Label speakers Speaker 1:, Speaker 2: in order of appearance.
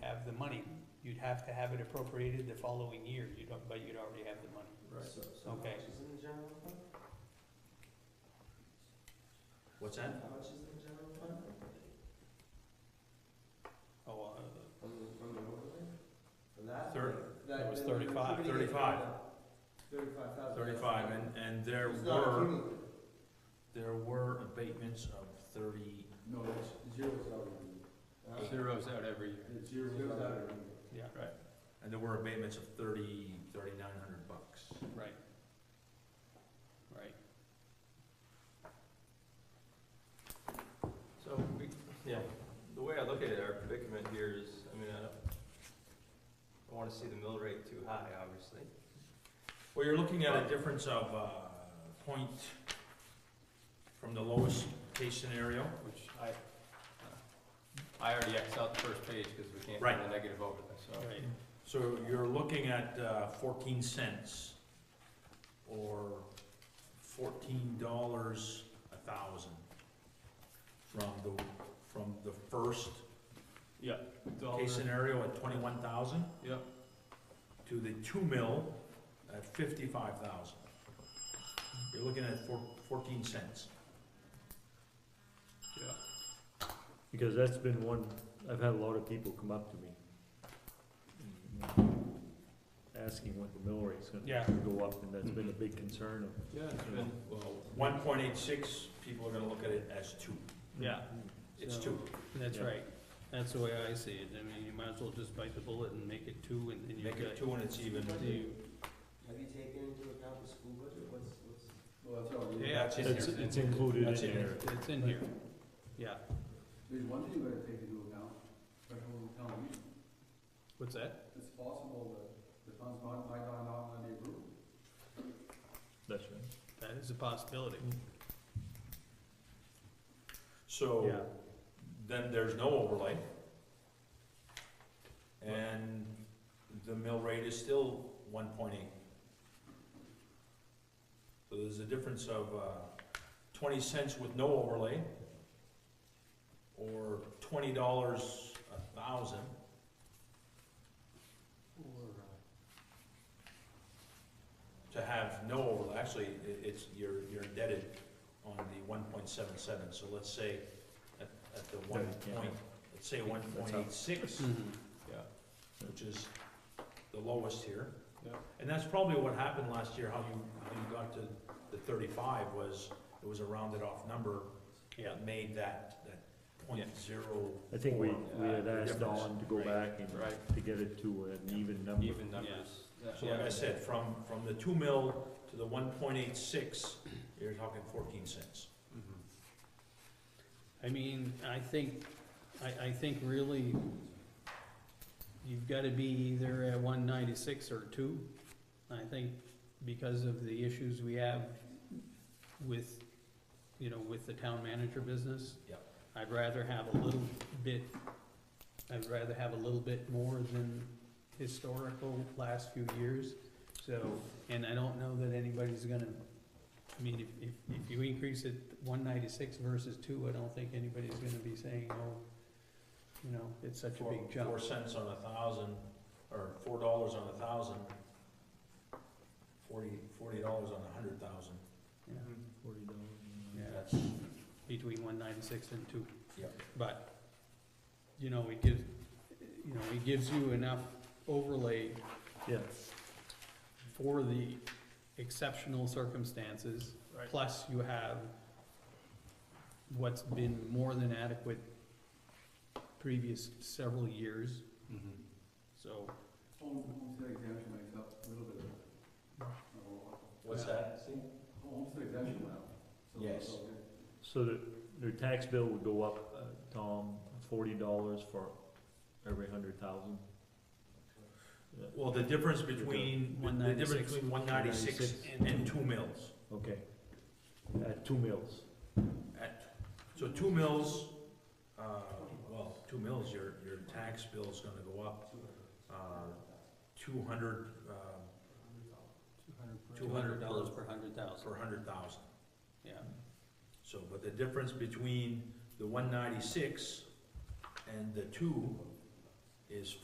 Speaker 1: have to have it appropriated the following year, you don't, but you'd already have the money.
Speaker 2: Right.
Speaker 3: So, so how
Speaker 1: Okay.
Speaker 3: much is in the general fund?
Speaker 2: What's
Speaker 3: How
Speaker 2: that?
Speaker 3: much is in the general fund?
Speaker 1: Oh,
Speaker 3: From the, from the overlay? For that?
Speaker 2: Thir-
Speaker 3: That-
Speaker 1: it was
Speaker 3: that we're
Speaker 1: 35.
Speaker 3: contributing it
Speaker 2: 35.
Speaker 3: to the- Thirty-five thousand.
Speaker 2: Thirty-five, and, and there
Speaker 3: It's not
Speaker 2: were,
Speaker 3: accumulated.
Speaker 2: there were abatements of thirty,
Speaker 3: No, it's zeros out every year.
Speaker 1: uh,
Speaker 3: Uh,
Speaker 1: zeros out every year.
Speaker 3: It's zeros out every year.
Speaker 1: Yeah,
Speaker 2: and there were abatements of thirty, thirty-nine hundred bucks.
Speaker 1: right. Right.
Speaker 4: So we, yeah, the way I look at it, our predicament here is, I mean, I don't, I wanna see the mill rate too high, obviously.
Speaker 2: Well, you're looking at a difference of, uh, point from the lowest case scenario.
Speaker 4: Which I, uh, I already Xed out the first page, cause we can't
Speaker 2: Right.
Speaker 4: put a negative over there, so.
Speaker 1: Right,
Speaker 2: So you're looking at uh, fourteen cents or fourteen dollars a thousand from the, from the first
Speaker 4: Dollar.
Speaker 2: case scenario at twenty-one thousand
Speaker 4: Yep,
Speaker 2: to the two mil at fifty-five thousand. You're looking at four, fourteen cents.
Speaker 4: yeah.
Speaker 5: Because that's been one, I've had a lot of people come up to me asking what the mill rate's
Speaker 1: Yeah.
Speaker 5: gonna go up, and that's been
Speaker 2: Mm-hmm.
Speaker 5: a big concern of.
Speaker 4: Yeah, it's been, well,
Speaker 2: One point eight six, people are gonna look at it as two.
Speaker 1: Yeah.
Speaker 2: It's
Speaker 1: So-
Speaker 2: two.
Speaker 1: that's
Speaker 5: Yeah.
Speaker 1: right, that's the way I see it, I mean, you might as well just bite the bullet and make it two and then you
Speaker 2: Make it
Speaker 1: got.
Speaker 2: two and it's even.
Speaker 1: you-
Speaker 3: Have you taken into account the school budget? What's, what's? Well, that's all.
Speaker 1: Yeah,
Speaker 2: That's in
Speaker 5: It's,
Speaker 2: there.
Speaker 5: it's included in
Speaker 2: That's in
Speaker 5: there.
Speaker 1: it's in here, yeah,
Speaker 3: There's one thing you gotta take into account, special town meeting.
Speaker 1: what's that?
Speaker 3: It's possible that the funds might, might not not be approved.
Speaker 5: That's right.
Speaker 1: That is a possibility.
Speaker 2: So,
Speaker 1: Yeah.
Speaker 2: then there's no overlay. And the mill rate is still one point eight. So there's a difference of, uh, twenty cents with no overlay, or twenty dollars a thousand, to have no overlay, actually, i- it's, you're, you're indebted on the one point seven seven, so let's say at, at the one
Speaker 5: Yeah.
Speaker 2: point, let's say one point eight six, which is the lowest here.
Speaker 4: Yeah.
Speaker 2: And that's probably what happened last year, how you, how you got to the thirty-five was, it was a rounded off number.
Speaker 1: Yeah.
Speaker 2: that Made that, that point zero.
Speaker 5: I think we, we had
Speaker 2: Yeah,
Speaker 5: asked
Speaker 2: difference.
Speaker 5: Don to go
Speaker 1: Right.
Speaker 5: back and,
Speaker 4: Right.
Speaker 5: to get it to an even number.
Speaker 4: even numbers.
Speaker 2: So like I said, from, from the two mil to the one point eight six, you're talking fourteen cents.
Speaker 4: Mm-hmm.
Speaker 1: I mean, I think, I, I think really, you've gotta be either at one ninety-six or two. I think because of the issues we have with, you know, with the town manager business.
Speaker 2: Yep.
Speaker 1: I'd rather have a little bit, I'd rather have a little bit more than historical last few years. So, and I don't know that anybody's gonna I mean, if, if, if you increase it one ninety-six versus two, I don't think anybody's gonna be saying, oh, you know, it's such a
Speaker 2: Four-
Speaker 1: big jump.
Speaker 2: Four cents on a thousand, or four dollars on a thousand, forty, forty dollars on a hundred thousand,
Speaker 1: Yeah,
Speaker 5: Forty dollars.
Speaker 1: Yeah.
Speaker 2: that's,
Speaker 1: Between one ninety-six and two.
Speaker 2: yeah.
Speaker 1: But, you know, it gives, you know, it gives you enough overlay
Speaker 5: Yeah,
Speaker 1: for the exceptional circumstances.
Speaker 2: Right.
Speaker 1: Plus you have what's been more than adequate previous several years, so.
Speaker 3: Home, homestead exemption makes up a little bit of it. Not a lot.
Speaker 2: What's
Speaker 1: Yeah.
Speaker 2: that, Steve?
Speaker 3: Homestead exemption now. So-
Speaker 2: Yes.
Speaker 3: so it-
Speaker 5: so that their tax bill would go up, uh, Tom, forty dollars for every hundred thousand.
Speaker 2: Well, the difference between, the difference
Speaker 1: 196.
Speaker 2: between one ninety-six
Speaker 5: 196.
Speaker 2: and, and two mills.
Speaker 5: Okay. At two mills.
Speaker 2: At, so two mills, uh, well, two mills, your, your tax bill's gonna go up, uh, two hundred, uh,
Speaker 1: Two hundred dollars per hundred thousand,
Speaker 2: per hundred thousand.
Speaker 1: yeah.
Speaker 2: So, but the difference between the one ninety-six and the two is